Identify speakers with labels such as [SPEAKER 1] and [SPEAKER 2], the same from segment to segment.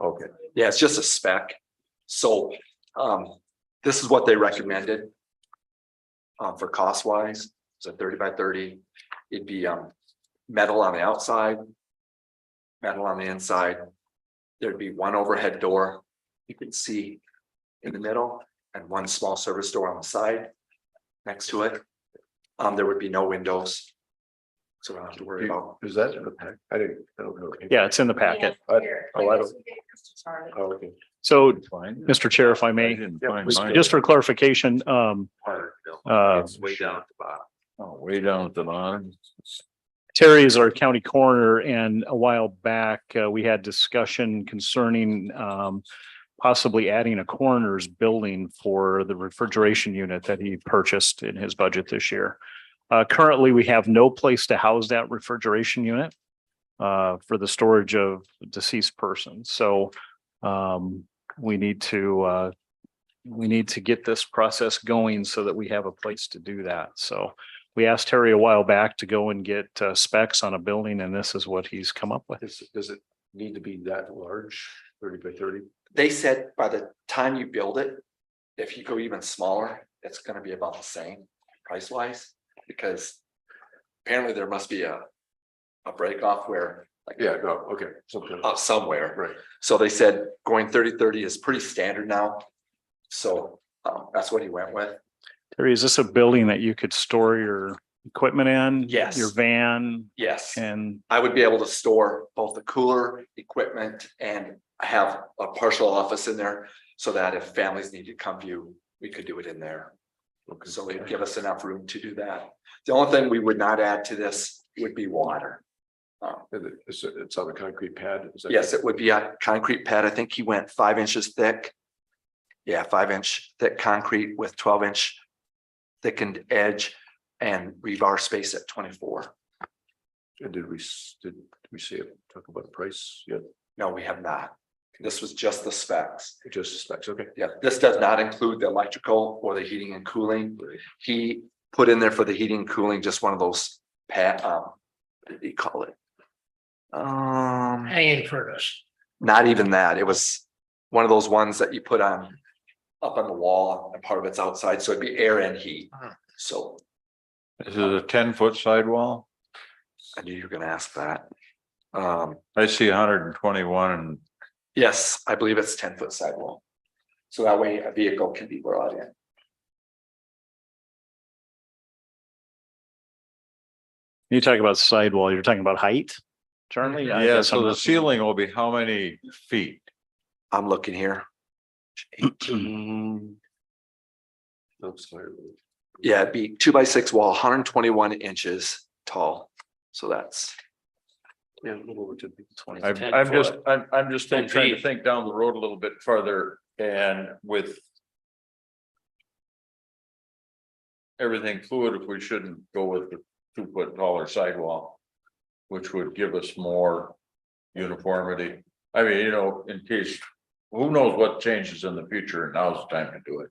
[SPEAKER 1] Okay, yeah, it's just a spec. So um, this is what they recommended. Um, for cost wise, so thirty by thirty, it'd be um, metal on the outside. Metal on the inside. There'd be one overhead door you can see in the middle and one small service door on the side next to it. Um, there would be no windows. So I don't have to worry about.
[SPEAKER 2] Is that in the pack? I didn't, I don't know.
[SPEAKER 3] Yeah, it's in the packet.
[SPEAKER 2] I-
[SPEAKER 4] Oh, I don't.
[SPEAKER 2] Oh, okay.
[SPEAKER 3] So,
[SPEAKER 5] Fine.
[SPEAKER 3] Mr. Chair, if I may,
[SPEAKER 5] didn't
[SPEAKER 2] Yeah,
[SPEAKER 5] find
[SPEAKER 2] please
[SPEAKER 5] mine.
[SPEAKER 2] go.
[SPEAKER 3] just for clarification, um, uh,
[SPEAKER 1] It's way down at the bottom.
[SPEAKER 5] Oh, Way down at the bottom.
[SPEAKER 3] Terry is our county coroner and a while back, uh, we had discussion concerning, um, possibly adding a coroner's building for the refrigeration unit that he purchased in his budget this year. Uh, currently, we have no place to house that refrigeration unit uh, for the storage of deceased persons. So, um, we need to, uh, we need to get this process going so that we have a place to do that. So, we asked Terry a while back to go and get uh, specs on a building and this is what he's come up with.
[SPEAKER 2] Does, does it need to be that large, thirty by thirty?
[SPEAKER 1] They said by the time you build it, if you go even smaller, it's gonna be about the same price wise, because. Apparently there must be a. A break off where, like.
[SPEAKER 2] Yeah, no, okay, something,
[SPEAKER 1] Up somewhere,
[SPEAKER 2] right.
[SPEAKER 1] so they said going thirty thirty is pretty standard now. So, um, that's what he went with.
[SPEAKER 3] Terry, is this a building that you could store your equipment in?
[SPEAKER 1] Yes.
[SPEAKER 3] Your van
[SPEAKER 1] Yes,
[SPEAKER 3] and
[SPEAKER 1] I would be able to store both the cooler equipment and have a partial office in there. So that if families need to come view, we could do it in there.
[SPEAKER 2] Okay.
[SPEAKER 1] So it'd give us enough room to do that. The only thing we would not add to this would be water. Um,
[SPEAKER 2] And it- It's, it's on a concrete pad. is that-
[SPEAKER 1] Yes, it would be a concrete pad. I think he went five inches thick. Yeah, five inch thick concrete with twelve inch thickened edge and rebar space at twenty-four.
[SPEAKER 2] And did we, s- did we see it, talk about price? Yeah,
[SPEAKER 1] No, we have not. This was just the specs.
[SPEAKER 2] just specs, okay.
[SPEAKER 1] Yeah, this does not include the electrical or the heating and cooling. He put in there for the heating and cooling, just one of those pat, um, what did he call it? Um.
[SPEAKER 6] hanging furnace.
[SPEAKER 1] not even that. It was one of those ones that you put on up on the wall and part of it's outside, so it'd be air and heat.
[SPEAKER 6] Mhm.
[SPEAKER 1] So
[SPEAKER 5] This is a ten foot sidewall.
[SPEAKER 1] I knew you were gonna ask that. Um,
[SPEAKER 5] I see hundred and twenty one and
[SPEAKER 1] yes, I believe it's ten foot sidewall. So that way a vehicle can be brought in.
[SPEAKER 3] you talk about sidewall, you're talking about height? Charlie? I
[SPEAKER 5] yeah,
[SPEAKER 3] guess
[SPEAKER 5] so
[SPEAKER 3] I'm
[SPEAKER 5] the
[SPEAKER 3] not-
[SPEAKER 5] ceiling will be how many feet?
[SPEAKER 1] I'm looking here. Eighteen,
[SPEAKER 2] I'm Mm. sorry.
[SPEAKER 1] yeah, it'd be two by six wall, hundred and twenty-one inches tall. So that's,
[SPEAKER 2] Yeah, a little over ten feet.
[SPEAKER 5] I'm, I'm just, I'm, I'm just trying to think down the road a little bit further and with. Everything fluid, if we shouldn't go with the two foot taller sidewall. Which would give us more uniformity. I mean, you know, in case, who knows what changes in the future and now's the time to do it.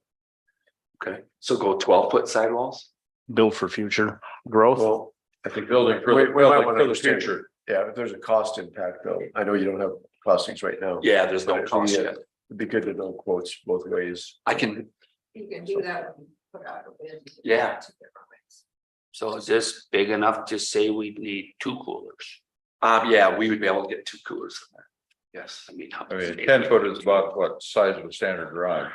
[SPEAKER 1] okay, so go twelve foot sidewalls?
[SPEAKER 3] Build for future growth.
[SPEAKER 2] Well, I think.
[SPEAKER 5] Building for the,
[SPEAKER 2] We- we might
[SPEAKER 5] building
[SPEAKER 2] wanna
[SPEAKER 5] for the
[SPEAKER 2] understand-
[SPEAKER 5] future.
[SPEAKER 2] Yeah, if there's a cost impact though, I know you don't have costings right now.
[SPEAKER 1] Yeah, there's
[SPEAKER 2] But
[SPEAKER 1] no
[SPEAKER 2] if we
[SPEAKER 1] cost
[SPEAKER 2] had-
[SPEAKER 1] yet.
[SPEAKER 2] It'd be good to know quotes both ways.
[SPEAKER 1] I can,
[SPEAKER 4] You can do that. when you put out a bid.
[SPEAKER 1] Yeah.
[SPEAKER 7] So is this big enough to say we need two coolers?
[SPEAKER 1] um, yeah, we would be able to get two coolers in there. Yes.
[SPEAKER 7] I mean. how-
[SPEAKER 5] I mean, ten foot is about what size of a standard garage.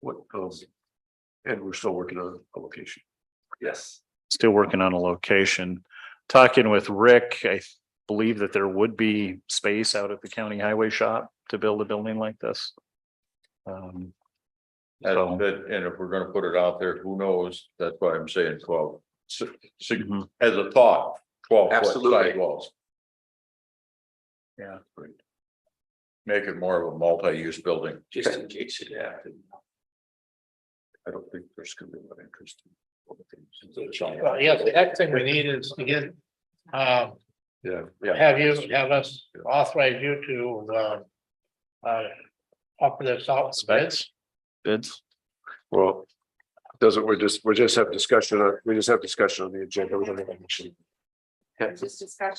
[SPEAKER 2] What, um, and we're still working on a location.
[SPEAKER 1] Yes.
[SPEAKER 3] Still working on a location. Talking with Rick, I believe that there would be space out at the county highway shop to build a building like this. Um,
[SPEAKER 5] That,
[SPEAKER 3] So-
[SPEAKER 5] that, and if we're gonna put it out there, who knows? That's why I'm saying twelve. Si- si-
[SPEAKER 3] mhm.
[SPEAKER 5] as a thought, twelve foot
[SPEAKER 1] Absolutely.
[SPEAKER 5] sidewalls.
[SPEAKER 3] Yeah.
[SPEAKER 5] Great. Make it more of a multi-use building.
[SPEAKER 7] Just in case it
[SPEAKER 2] Yeah.
[SPEAKER 7] happened.
[SPEAKER 2] I don't think there's gonna be a lot of interest. in
[SPEAKER 6] Well, yeah, the next thing we need is to get, um,
[SPEAKER 2] Yeah, yeah.
[SPEAKER 6] have you, have us authorize you to, uh. Uh, offer this out to bids.
[SPEAKER 3] Bids?
[SPEAKER 2] Well, doesn't, we're just, we just have discussion, on- we just have discussion on the agenda. We don't have action.
[SPEAKER 4] Just discussion.